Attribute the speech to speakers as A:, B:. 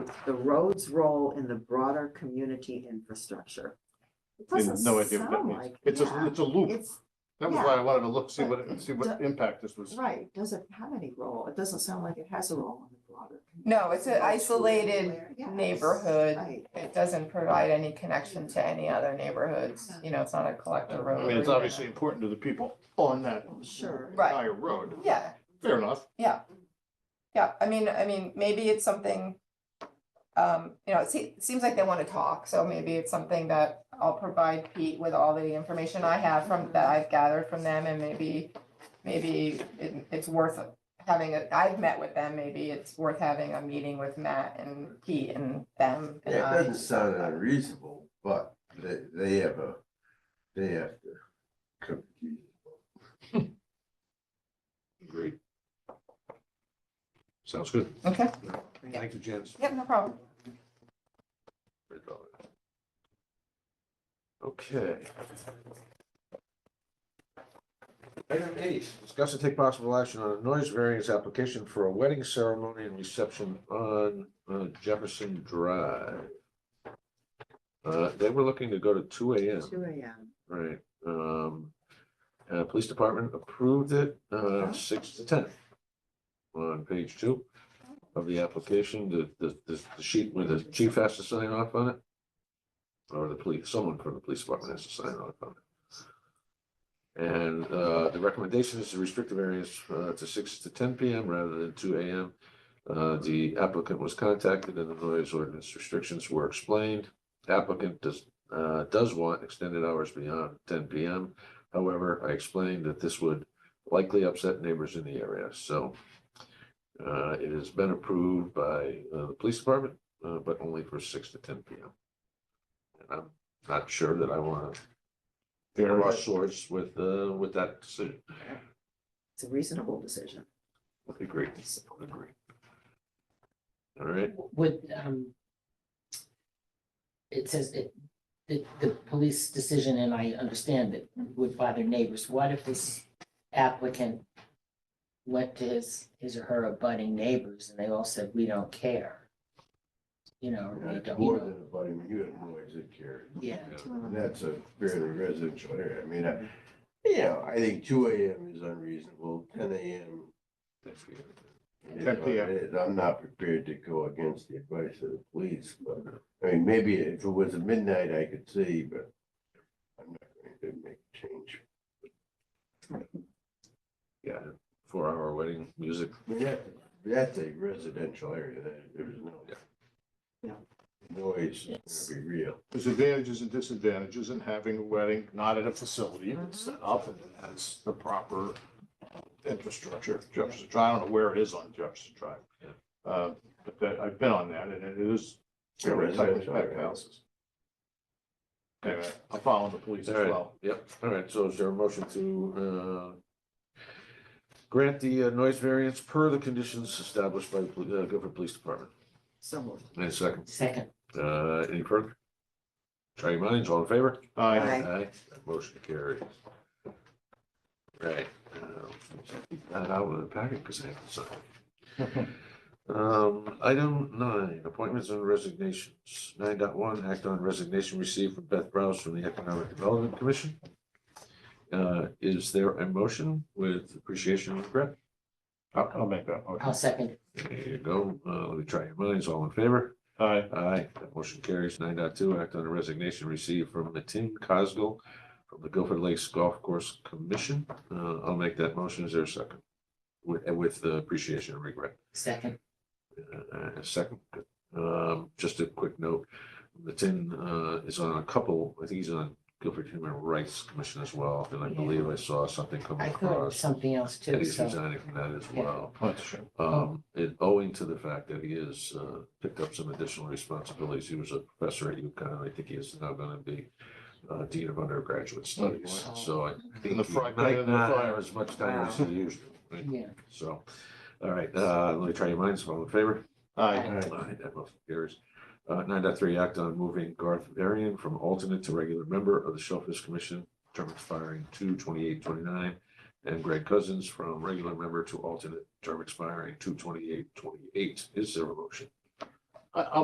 A: the road's role in the broader community infrastructure. It
B: I have
A: doesn't
B: no idea what that
A: sound
B: means.
A: like-
B: It's a,
A: yeah,
B: it's a loop.
A: It's,
B: That was
A: yeah.
B: why I wanted to look, see
A: But
B: what, see what
A: the-
B: impact this was.
A: right, doesn't have any role. It doesn't sound like it has a role in the broader.
C: No, it's an isolated
A: Yes,
C: neighborhood.
A: right.
C: It doesn't provide any connection to any other neighborhoods, you know, it's not a collector road.
B: I mean, it's
C: or-
B: obviously important to the people on that
A: Sure.
C: Right.
B: entire road.
C: Yeah,
B: Fair enough.
C: Yeah, I mean, I mean, maybe it's something. Um, you know, it se- it seems like they wanna talk, so maybe it's something that I'll provide Pete with all the information I have from, that I've gathered from them and maybe. Maybe it, it's worth having, a. have met with them, maybe it's worth having a meeting with Matt and Pete and them.
D: It
C: and I.
D: doesn't sound unreasonable, but they, they have a, they have to. come to
B: Agreed. Sounds good.
C: Okay,
B: Thank you, Janice.
C: yep, no problem.
B: Okay.
E: Item eight, discuss and take possible action on a noise variance application for a wedding ceremony and reception on uh, Jefferson Drive. Uh, they were looking to go to two AM,
A: Two AM.
E: right? Um, uh, police department approved it, uh, six to ten. On page two of the application, the, the, the- the sheet where the chief has to sign off on it. Or the police, someone from the police department has to sign off on it. And uh, the recommendation is to restrict the variance uh, to six to ten PM rather than two AM. Uh, The applicant was contacted and the noise ordinance restrictions were explained. Applicant does, uh, does want extended hours beyond ten PM. However, I explained that this would likely upset neighbors in the area, so uh, it has been approved by uh, the police department, uh, but only for six to ten PM. And I'm not sure that I want to bear our swords with, uh, with that decision.
A: It's a reasonable decision.
E: Agree, agree. All right,
F: Would, um, it says that the, the police decision, and I understand that would bother neighbors. What if this applicant went to his, his or her abutting neighbors and they all said, we don't care? You know,
D: you.
F: or we
D: It's
F: don't,
D: more
F: you know,
D: than a buddy, you have noise that carries.
F: yeah.
D: And that's a fairly residential area. I mean, I, you know, I think two AM is unreasonable, ten AM. is
B: 10
D: what
B: PM.
D: it is. I'm not prepared to go against the advice of the police, but, I mean, maybe if it was at midnight, I could see, but I'm not going to make a change.
E: yeah, four hour wedding music.
D: I mean, that, that's a residential area, that, there's no.
E: Yeah.
A: Yeah.
D: Noise,
F: Yes.
D: to be real.
B: There's advantages and disadvantages in having a wedding not at a facility that's set up and that has the proper infrastructure. Jefferson Drive, I don't know where it is on Jefferson Drive. Uh, But that- I've been on that and it is
D: Yeah,
B: very tight with
D: residential
B: packed
D: area.
B: houses. Anyway, I'm following the police
E: All
B: as
E: right,
B: well.
E: yep, all right, so is there a motion to, uh, grant the uh, noise variance per the conditions established by the poli- uh, Guilford Police Department?
A: So moved.
E: Any second,
F: Second,
E: uh, any further? Try your minds, all in favor?
B: Aye.
A: Aye.
E: Aye, that motion carries. Right. uh, That out of the packet because I have to sign. Um, item nine, appointments and resignations. Nine dot one, act on resignation received from Beth Browse from the Economic Development Commission. Uh, is there a motion with appreciation and regret?
B: I'll I'll make that
F: I'll
B: motion.
F: oh, second,
E: There you go. Uh, let me try your minds. All in favor?
B: Aye.
E: Aye, that motion carries. Nine point two. act on a resignation received from Matin Cosgel from the Guilford Lakes Golf Course Commission. Uh, I'll make that motion. Is there a second? With, and with the appreciation and regret.
F: second,
E: Uh, a second, Good. um, just a quick note. Matin, uh, is on a couple, I think he's on Guilford Human Rights Commission as well, and I believe I saw something come
F: I thought it was
E: across.
F: something else
E: And
F: too,
E: he's
F: so,
E: resigning from that as
F: Yeah.
E: well.
B: That's true.
E: Um, and owing to the fact that he has, uh, picked up some additional responsibilities, he was a professor at UConn, I think he is now gonna be uh, Dean of Undergraduate Studies,
F: wow.
E: so I
B: And Oh, the
E: think he
B: fry pan
E: might
B: and the
E: not
B: fire.
E: have as much time as he usually, would.
F: yeah.
E: so. All right, uh, let me try your minds, all in favor?
B: Aye.
E: Aye, that motion carries. Uh, nine dot three, act on moving Garth Varian from alternate to regular member of the Shellfish Commission, term expiring two twenty-eight, twenty-nine. And Greg Cousins from regular member to alternate, term expiring two twenty-eight, twenty-eight. Is there a motion?
B: I,